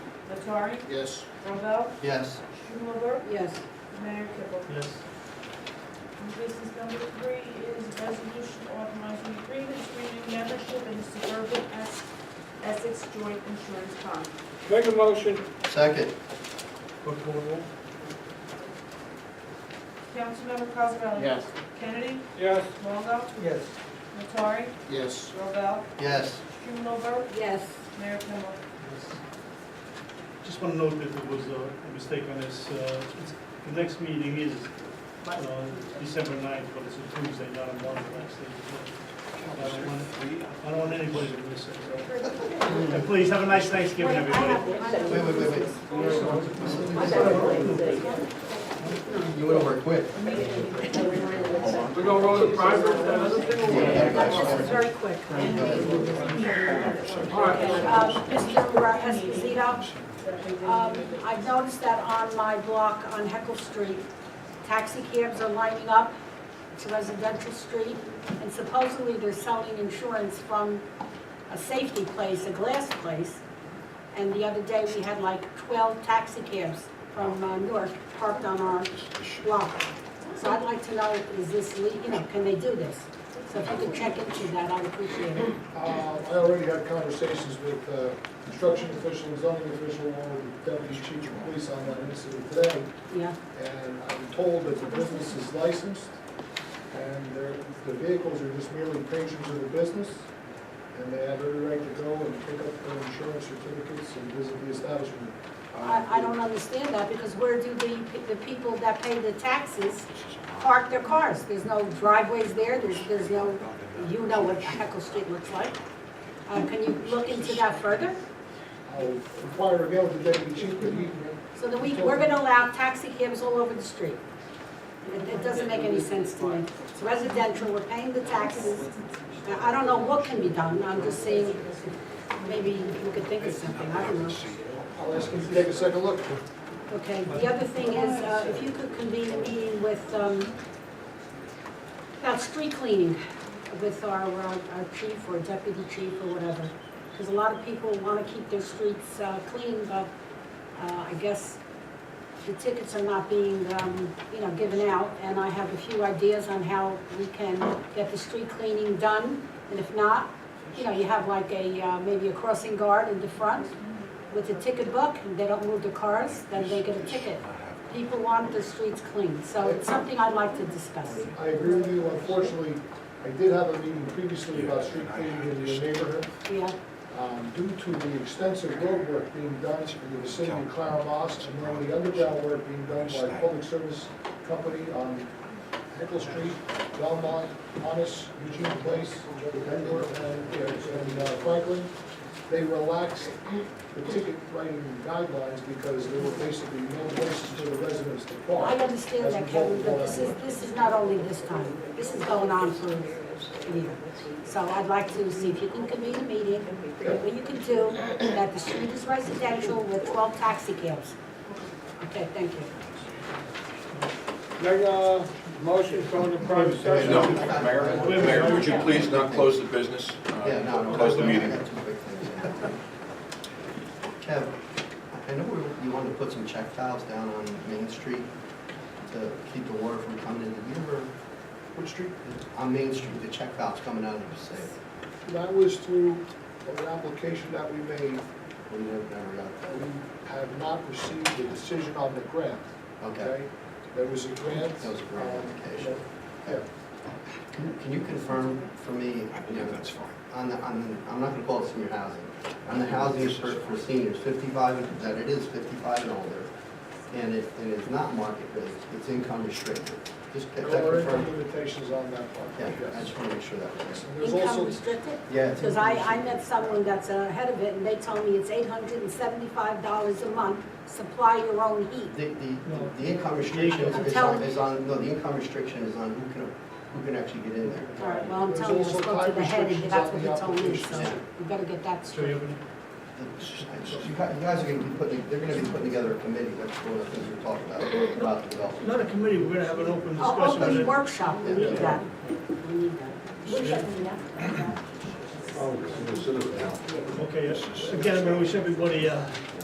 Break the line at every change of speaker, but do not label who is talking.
Nattari,
Yes.
Robel,
Yes.
Schumelberg,
yes,
Mayor Kibble.
Yes.
And business number three is resolution authorizing agreement between membership and suburban Es- Essex Joint Insurance Fund.
Make a motion,
Second.
Clerk call the roll.
Councilmember Cosarelli?
Yes.
Kennedy?
yes.
Longo?
Yes.
Nattari?
Yes.
Robel?
Yes.
Schumelberg?
yes.
Mayor Kibble.
Just want to note that there was a mistake on this. Uh, it's- The next meeting is uh, December 9th, but it's a Tuesday, not a Monday, next day. I don't want- I don't want anybody to miss it. so. And please, have a nice Thanksgiving, everybody.
Wait, wait, wait, wait. You went over quick.
We go roll the private, another thing
Yeah,
away.
that
This
was-
is very quick.
All right.
Um, Mr. Esposito, um, I've noticed that on my block on Heckle Street, taxi cabs are lining up to residential street, and supposedly they're selling insurance from a safety place, a glass place. And the other day, we had like 12 taxi cabs from uh, Newark parked on our block. So I'd like to know, is this, le- you know, can they do this? So if you could check into that, I'd appreciate it.
Uh, I already had conversations with uh, construction officials, zoning official, along with deputy chief of police on that incident today.
Yeah,
And I'm told that the business is licensed and their- the vehicles are just merely patrons of the business. And they have every right to go and pick up their insurance certificates and visit the establishment.
I, I don't understand that, because where do the, the people that pay the taxes park their cars? There's no driveways there, there's, there's no, you know what Heckle Street looks like. Uh, can you look into that further?
I'll inquire again with the deputy chief, but he,
So that we, we're gonna allow taxi cabs all over the street. It, it doesn't make any sense to me. It's residential, we're paying the taxes. I I don't know what can be done, I'm just saying, maybe you could think of something, I don't know.
I'll ask him to take a second look.
Okay, the other thing is, uh, if you could convene a meeting with, um, about street cleaning with our, uh, our chief or deputy chief or whatever. Because a lot of people want to keep their streets uh, clean, but uh, I guess the tickets are not being, um, you know, given out. And I have a few ideas on how we can get the street cleaning done. And if not, you know, you have like a, uh, maybe a crossing guard in the front with a ticket book, and they don't move the cars, then they get a ticket. People want the streets clean, so it's something I'd like to discuss.
I agree with you, unfortunately, I did have a meeting previously about street cleaning in the neighborhood.
Yeah,
Um, Due to the extensive road work being done in the vicinity of Clara Mosque, and then the underground work being done by a public service company on Nickel Street, Belmont, Honest, Eugene Place, Denver, and and, uh, Franklin, they relaxed the ticket writing guidelines because there were basically no places for the residents to
I
park.
understand that, Kevin, but this is, this is not only this time, this is going on for a year. So I'd like to see if you can convene a meeting, what you can do, that the street is residential with twelve taxi cabs. Okay, thank you.
Make a motion from the private session.
No, Mayor, would you please not close the business? uh,
Yeah, no, no.
Close the meeting.
Kev, I know we- you wanted to put some check valves down on Main Street to keep the water from coming in. Did you ever,
Which street?
on Main Street, the check valves coming out of the safe?
That was through an application that we made
We never never got that.
We have not received a decision on the grant,
Okay.
okay? There was a grant.
That was a grant
um,
application.
Yeah,
Can you- Can you confirm for me?
I believe that's fine.
on the, on the, I'm not gonna call it senior housing, on the housing for, for seniors, fifty-five, and- that it is fifty-five and older, and it, and it's not market rate, it's income restricted. Just get that
there are
confirmed.
limitations on that part,
Yeah, I
yes.
just wanna make sure that works.
And There's
Income
also,
restricted?
Yeah. it's
Because I,
income
I met someone that's ahead of it, and they told me it's eight hundred and seventy-five dollars a month, supply your own
restricted.
heat.
The, the, the income restriction
I'm
is
telling
on,
you.
is on, no, the income restriction is on who can, who can actually get in there.
All right, well, I'm
There's
telling you, I
also
spoke to
time
the head, and
restrictions
that's
on
what
the
he told me,
applications.
so we better get that
So you
straight.
have any?
The- You guys, you guys are gonna be putting, they're gonna be putting together a committee, that's one of the things we're talking about, about development.
Not a committee, we're gonna have an open
Oh,
discussion.
open
on it.
workshop, we need that. We need that.
Oh,
Okay, again, I'm gonna wish everybody, uh,